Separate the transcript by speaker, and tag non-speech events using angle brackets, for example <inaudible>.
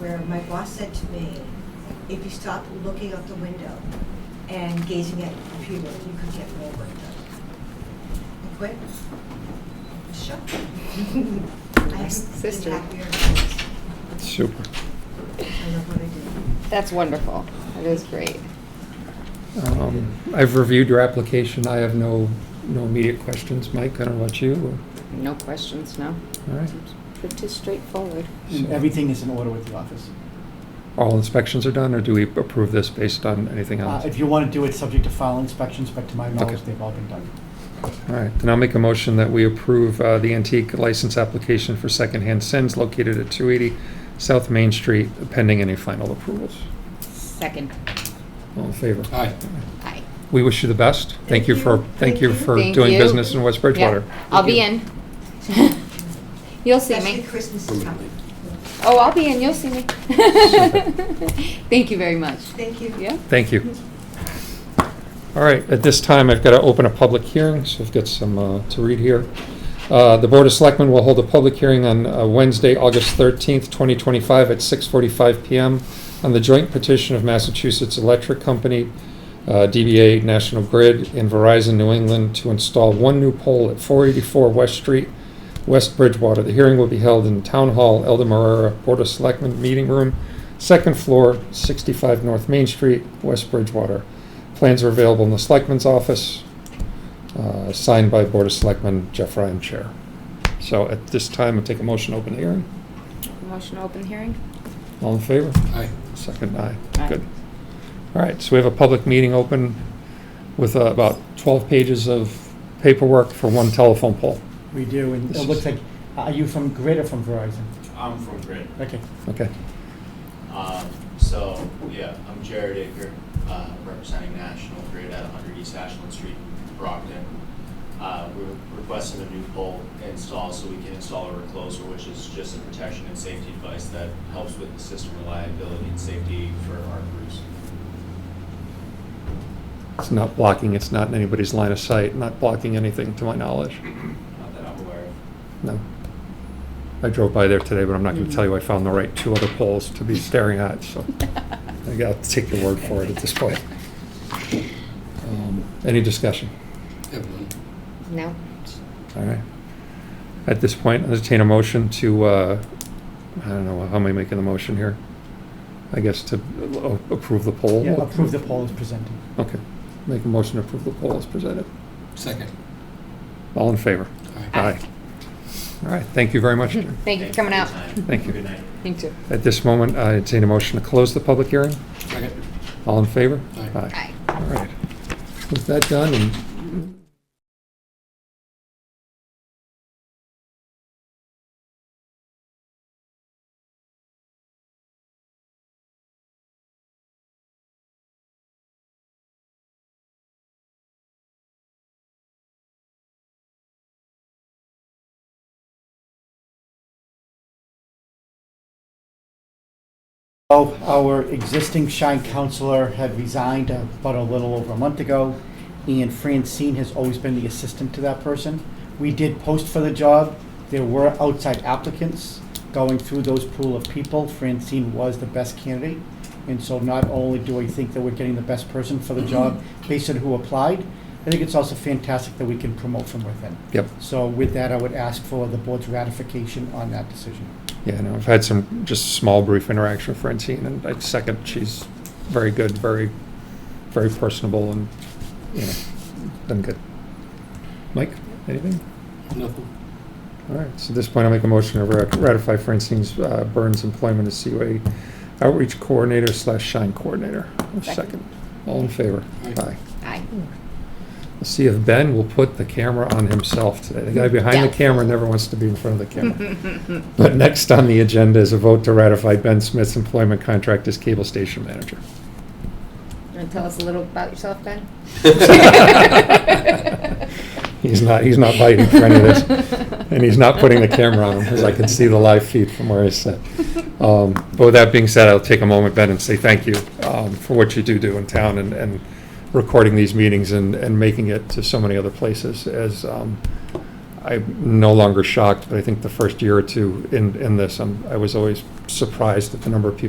Speaker 1: where my boss said to me, if you stop looking out the window and gazing at your computer, you could get more work done. I quit. Shut.
Speaker 2: <laughs>
Speaker 1: I haven't
Speaker 2: Sister.
Speaker 1: been happier since.
Speaker 3: Super.
Speaker 1: I love what I
Speaker 2: <laughs>
Speaker 1: do.
Speaker 2: That's wonderful. That is great.
Speaker 3: Um, I've reviewed your application. I have no, no immediate questions. Mike, I don't know about you.
Speaker 2: No questions, no.
Speaker 3: All right.
Speaker 2: Pretty straightforward.
Speaker 4: And everything is in order with the office.
Speaker 3: All inspections are done, or do we approve this based on anything
Speaker 4: Uh,
Speaker 3: else?
Speaker 4: If you want to do it, subject to file inspections, but to my knowledge,
Speaker 3: Okay.
Speaker 4: they've all been done.
Speaker 3: All right, then I'll make a motion that we approve uh, the antique license application for Secondhand Sins located at 280 South Main Street pending any final approvals.
Speaker 2: Second.
Speaker 3: All in favor?
Speaker 5: Aye.
Speaker 2: Aye.
Speaker 3: We wish you the best. Thank
Speaker 1: Thank
Speaker 3: you
Speaker 1: you.
Speaker 3: for, thank you for
Speaker 2: Thank
Speaker 3: doing
Speaker 2: you.
Speaker 3: business in West Bridgewater.
Speaker 2: Yeah, I'll be in. You'll see
Speaker 1: Especially
Speaker 2: me.
Speaker 1: Christmas is coming.
Speaker 2: Oh, I'll be in, you'll see
Speaker 3: <laughs>
Speaker 2: me. Thank you very much.
Speaker 1: Thank you.
Speaker 2: Yeah?
Speaker 3: Thank you. All right, at this time, I've got to open a public hearing, so I've got some uh, to read here. Uh, The Board of Selectmen will hold a public hearing on uh, Wednesday, August 13th, 2025, at 6:45 PM on the joint petition of Massachusetts Electric Company, uh, DBA National Grid, and Verizon New England to install one new pole at 484 West Street, West Bridgewater. The hearing will be held in Town Hall, Elder Marrera Board of Selectmen Meeting Room, second floor, 65 North Main Street, West Bridgewater. Plans are available in the Selectman's office, uh, signed by Board of Selectmen Jeff Ryan Chair. So at this time, I'll take a motion to open the hearing.
Speaker 2: Motion to open hearing?
Speaker 3: All in favor?
Speaker 5: Aye.
Speaker 3: Second, aye.
Speaker 2: Aye.
Speaker 3: Good. All right, so we have a public meeting open with uh, about 12 pages of paperwork for one telephone pole.
Speaker 4: We do, and
Speaker 3: This
Speaker 4: it
Speaker 3: is-
Speaker 4: looks like, are you from Grid or from Verizon?
Speaker 6: I'm from Grid.
Speaker 4: Okay.
Speaker 3: Okay.
Speaker 6: Um, so, yeah, I'm Jared Aker, uh, representing National Grid at 100 East Ashland Street, Brockton. Uh, we're requesting a new pole install so we can install a recloser, which is just a protection and safety device that helps with the system reliability and safety for our crews.
Speaker 3: It's not blocking, it's not in anybody's line of sight, not blocking anything to my knowledge.
Speaker 6: Not that I'm aware of.
Speaker 3: No. I drove by there today, but I'm not going to
Speaker 2: Mhm.
Speaker 3: tell you I found the right two other poles to be staring at, so I got to take your word for it at this point. Um, Any discussion?
Speaker 5: Everyone.
Speaker 2: <laughs> No?
Speaker 3: All right. At this point, entertain a motion to, uh, I don't know, how am I making the motion here? I guess to a- approve the poll?
Speaker 4: Yeah, approve the poll as presented.
Speaker 3: Okay. Make a motion to approve the poll as presented.
Speaker 5: Second.
Speaker 3: All in favor?
Speaker 5: Aye.
Speaker 3: Aye. All right, thank you very much. Jim.
Speaker 2: Thank you for coming out.
Speaker 6: Thanks your time.
Speaker 3: Thank you.
Speaker 6: Good night.
Speaker 2: You too.
Speaker 3: At this moment, I entertain a motion to close the public hearing.
Speaker 5: Second.
Speaker 3: All in favor?
Speaker 5: Aye.
Speaker 2: Aye.
Speaker 3: All right. With that done, and
Speaker 4: Oh, our existing shine counselor had resigned uh, about a little over a month ago, and Francine has always been the assistant to that person. We did post for the job. There were outside applicants. Going through those pool of people, Francine was the best candidate. And so not only do I think that we're getting the best person for the job based on who applied, I think it's also fantastic that we can promote from within.
Speaker 3: Yep.
Speaker 4: So with that, I would ask for the board's ratification on that decision.
Speaker 3: Yeah, no, I've had some just small brief interaction with Francine, and I second, she's very good, very, very personable, and, you know, done good. Mike, anything?
Speaker 5: Nothing.
Speaker 3: All right, so at this point, I'll make a motion to ra- ratify Francine's uh, Burns employment as COA outreach coordinator slash shine coordinator. Second.
Speaker 2: Second.
Speaker 3: All in favor?
Speaker 5: Aye.
Speaker 2: Aye.
Speaker 3: Let's see if Ben will put the camera on himself today. The guy behind the
Speaker 2: Doubtful.
Speaker 3: camera never wants to be in front of the camera.
Speaker 2: <laughs>
Speaker 3: But next on the agenda is a vote to ratify Ben Smith's employment contract as cable station manager.
Speaker 2: Want to tell us a little about yourself, Ben?
Speaker 3: <laughs> He's not, he's not biting for any of this. And he's not putting the camera on him, because I can see the live feed from where
Speaker 2: <laughs>
Speaker 3: he's sat. Um, But with that being said, I'll take a moment, Ben, and say thank you um, for what you do do in town and, and recording these meetings and, and making it to so many other places. As um, I'm no longer shocked, but I think the first year or two in, in this, I'm- I was always surprised at the number of people